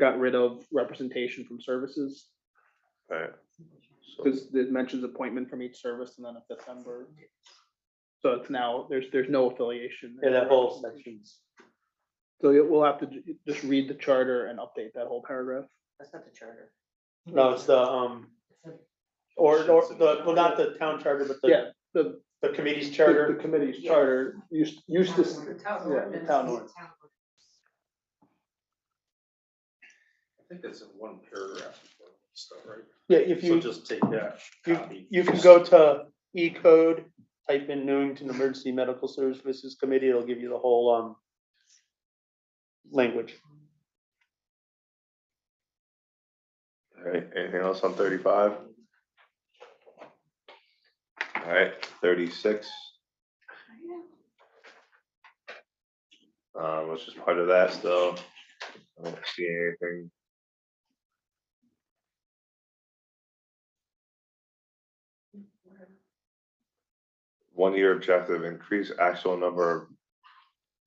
got rid of representation from services, Alright, so- because it mentions appointment from each service and then a fifth member. So it's now, there's, there's no affiliation. Yeah, that whole section's, So it- we'll have to ju- just read the charter and update that whole paragraph. That's not the charter. no, it's the, um, or, or the, well, not the town charter, but the, Yeah, the, the committee's the charter. committee's charter used, used to. The town yeah, ordinance. town ordinance. I think it's in one paragraph. so, right? Yeah, if So you, just take that you, copy. you can go to E code, type in Newington Emergency Medical Services Committee, it'll give you the whole, um, language. Alright, anything else on thirty-five? Alright, thirty-six, um, which is part of that still. I don't see anything. One-year objective, increase actual number of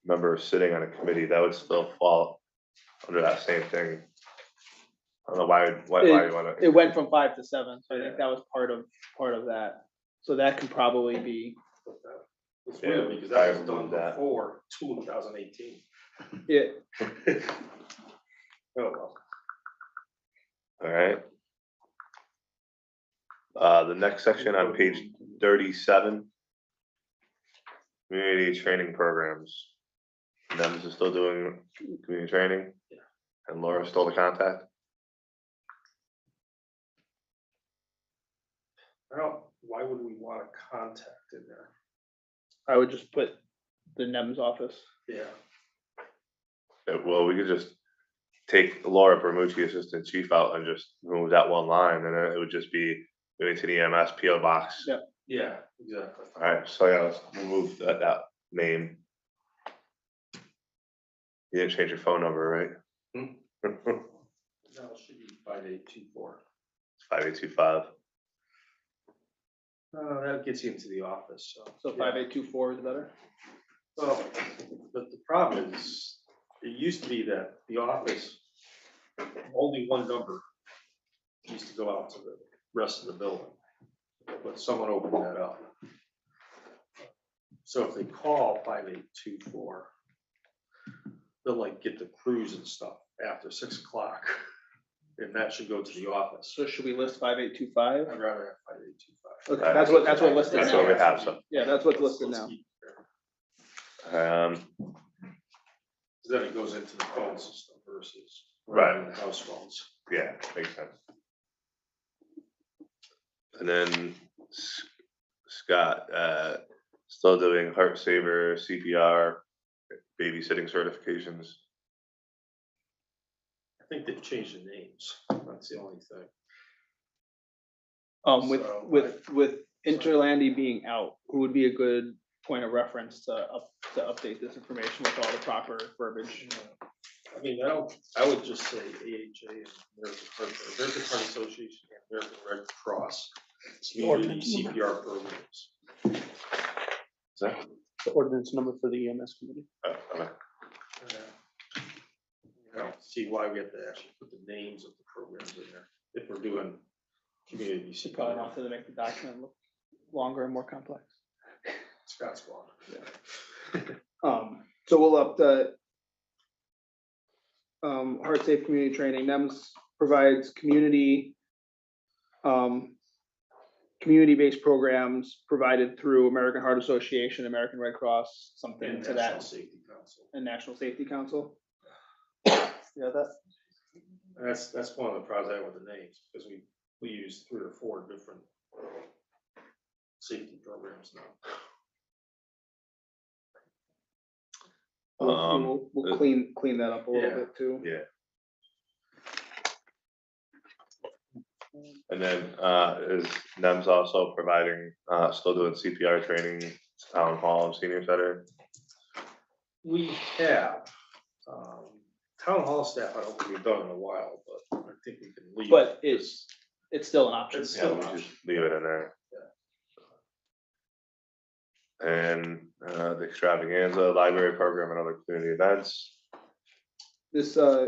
members sitting on a committee, that would still fall under that same thing. I don't know why, why, why you wanna. It went from five to seven, so I think that was part of, part of that. So that can probably be, It's Yeah, weird because I that was done remember that. before two thousand eighteen. it, Oh, well. Alright. Uh, the next section on page thirty-seven. Community training programs. Nems is still doing community training? Yeah. And Laura's still the contact? I don't, why would we want a contact in there? I would just put the NEM's office. Yeah. Uh, Well, we could just take Laura Bermucci, Assistant Chief out and just remove that one line and then it would just be going to the E EMS PO box. Yeah. Yeah, exactly. Alright, so yeah, let's remove that, that name. You didn't change your phone number, right? No, it should be five eight two four. Five eight two five. Uh, that gets you into the office, so. So five eight two four is better. Well, but the problem is, it used to be that the office, only one number used to go out to the rest of the building, but someone opened that up. So if they call five eight two four, they'll like get the crews and stuff after six o'clock, and that should go to the office. So should we list five eight two five? I'd rather have five eight two five. Okay, that's what, that's what listed That's what now. we have, so. Yeah, that's what's listed now. Um, Then it goes into the phone system versus. Right. the House phones. yeah, makes sense. And then S- Scott, uh, still doing heart saver, CPR, babysitting certifications. I think they've changed the names. That's the only thing. Um, with, So, with, with Interlandi being out, who would be a good point of reference to up, to update this information with all the proper verbiage? I mean, I don't, I would just say AHA and American Heart, American Heart Association and American Red Cross. Community CPR programs. Is that? The ordinance number for the EMS committee. oh, okay. Uh, I don't see why we have to actually put the names of the programs in there if we're doing community Should probably CPR. not to make the document look longer and more complex. Scott's one. Um, so we'll up the um, Heart Safe Community Training, NEMS provides community um, community-based programs provided through American Heart Association, American Red Cross, something And to National that, Safety Council. and National Safety Council. Yeah, that, And That's, that's one of the problems I have with the names, because we, we use three or four different safety programs now. We'll- Um, We'll, we'll uh, clean, clean that up a little Yeah. bit too. And then, uh, is NEM's also providing, uh, still doing CPR training, town hall, and senior center? We have, um, town hall staff, I don't think we've done in a while, but I think we can leave. But it's, it's still an option. It's Yeah, still we an just option. leave it in there. And, uh, the extravaganza, library program and other community events. This, uh,